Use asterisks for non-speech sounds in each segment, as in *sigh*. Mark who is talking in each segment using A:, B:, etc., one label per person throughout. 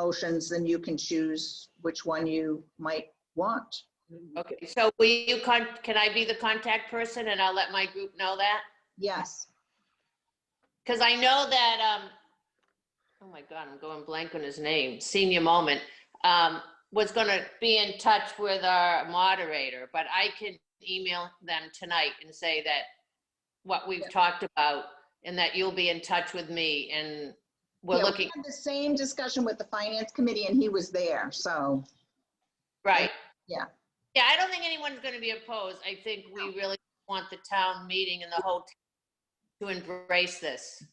A: motions, then you can choose which one you might want.
B: Okay, so will you con, can I be the contact person and I'll let my group know that?
A: Yes,
B: Because I know that, um, oh my God, I'm going blank on his name, senior moment, um, was gonna be in touch with our moderator, but I can email them tonight and say that what we've talked about and that you'll be in touch with me and we're
A: Yeah,
B: looking,
A: had the same discussion with the finance committee and he was there, so,
B: right?
A: Yeah.
B: Yeah, I don't think anyone's gonna be opposed. I think we really want the town meeting and the whole town to embrace this.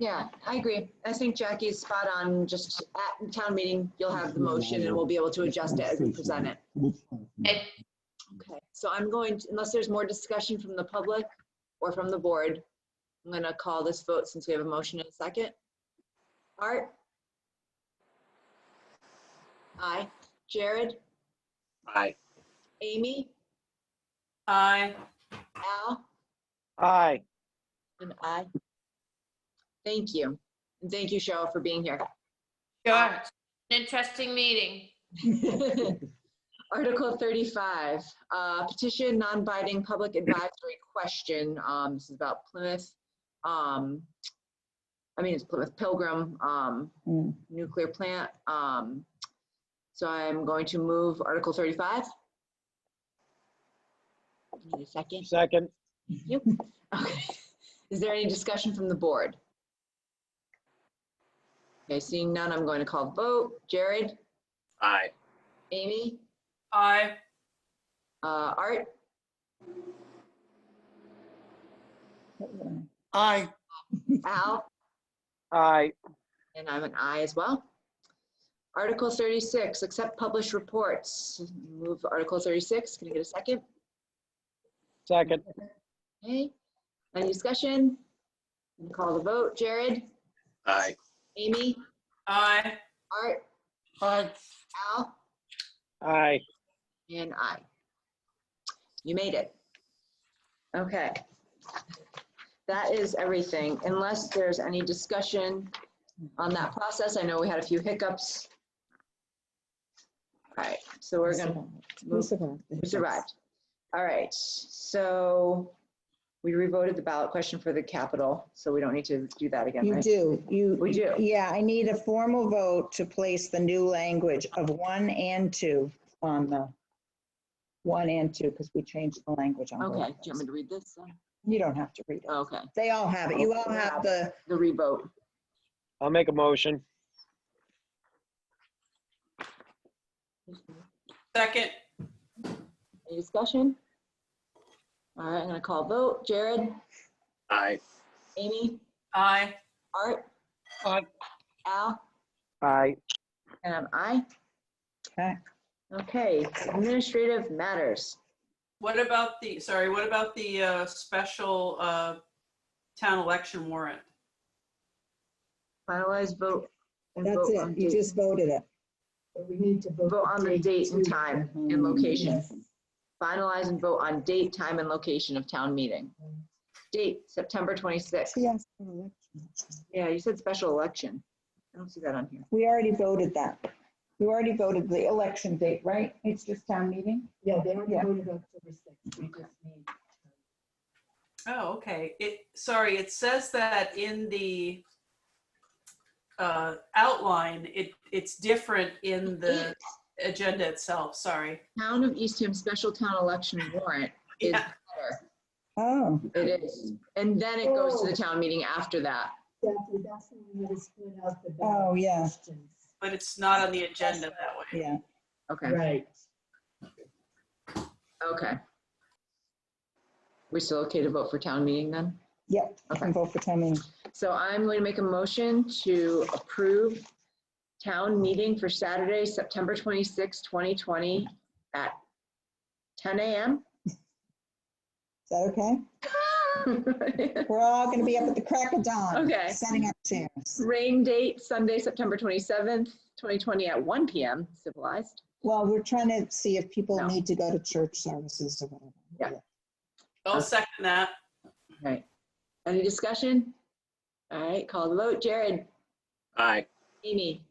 A: yeah, I agree.
C: I think Jackie is spot on. Just at town meeting, you'll have the motion and we'll be able to adjust it as we present it.
B: Okay.
C: Okay, so I'm going, to- unless there's more discussion from the public or from the board, I'm going to call this vote since we have a motion and a second. Art? Aye. Jared?
D: Aye.
C: Amy?
E: Aye.
C: Al?
D: Aye.
C: And I. Thank you. And thank you, Cheryl, for being here.
B: Sure. An interesting meeting.
C: *laughs* Article 35, uh, petition, non-binding public advisory question. Um, This is about Plymouth. um, I mean, it's Plymouth Pilgrim um, Nuclear Plant. Um, So I'm going to move Article 35. Need a second?
D: Second.
C: Okay. Is there any discussion from the board? Okay, seeing none, I'm going to call the vote. Jared?
D: Aye.
C: Amy?
E: Aye.
C: Uh, Art?
D: Aye.
C: Al?
D: Aye.
C: And I'm an aye as well. Article 36, accept published reports. Move Article 36. Can I get a second?
D: Second.
C: Okay. Any discussion? Gonna Call the vote. Jared?
D: Aye.
C: Amy?
E: Aye.
C: Art?
D: Aye.
C: Al?
D: Aye.
C: And I. You made it. Okay. That is everything, unless there's any discussion on that process. I know we had a few hiccups. All right, so we're gonna,
F: We survived.
C: we survived. All right, so we revoted the ballot question for the capital, so we don't need to do that again,
F: You
C: right?
F: do, you.
C: We do.
F: Yeah, I need a formal vote to place the new language of one and two on the, one and two, because we changed the language on.
C: Okay,
F: both
C: do
F: of
C: you
F: those.
C: want me to read this? then?
F: You don't have to read it.
C: Okay,
F: They all have it. You all have the,
C: the revote.
D: I'll make a motion.
E: Second.
C: Any discussion? All right, I'm gonna call vote. Jared?
D: Aye.
C: Amy?
E: Aye.
C: Art?
D: Aye.
C: Al?
D: Aye.
C: And I'm aye.
F: Okay.
C: Okay, administrative matters.
E: What about the, sorry, what about the uh, special uh, town election warrant?
C: Finalize vote. and
F: that's
C: vote on
F: it. You
C: date.
F: just voted it.
G: We need to vote.
C: Vote on the date and
G: too.
C: time and location.
F: Yes.
C: Finalize and vote on date, time, and location of town meeting. Date, September 26th.
F: Yes.
C: Yeah, you said special election. I don't see that on here.
F: We already voted that. You already voted the election date, right? It's just town meeting?
G: Yeah, they already
F: Yeah.
G: voted October sixth. We just need.
E: Oh, okay. It, sorry, it says that in the uh, outline, it, it's different in the agenda itself, sorry.
C: Town of Eastham special town election warrant is
E: Yeah.
C: better.
F: Oh,
C: It is. And then it goes to the town meeting after that.
G: Exactly, that's when we need to split out the.
F: Oh,
G: ballot
F: yeah.
G: questions.
E: But it's not on the agenda that way.
F: yeah.
C: Okay,
G: Right.
C: okay. We still okay to vote for town meeting then?
F: Yep. I can vote for town meeting.
C: So I'm going to make a motion to approve town meeting for Saturday, September 26, 2020 at 10 a.m.
F: Is that okay? We're all going to be up at the crack of dawn.
C: Okay.
F: Setting up chairs.
C: Rain date, Sunday, September 27th, 2020 at 1 p.m. civilized.
F: Well, we're trying to see if people
C: No.
F: need to go to church services or whatever.
C: Yeah.
E: I'll second that.
C: Right. Any discussion? All right, call the vote. Jared,
D: Aye.
C: Amy,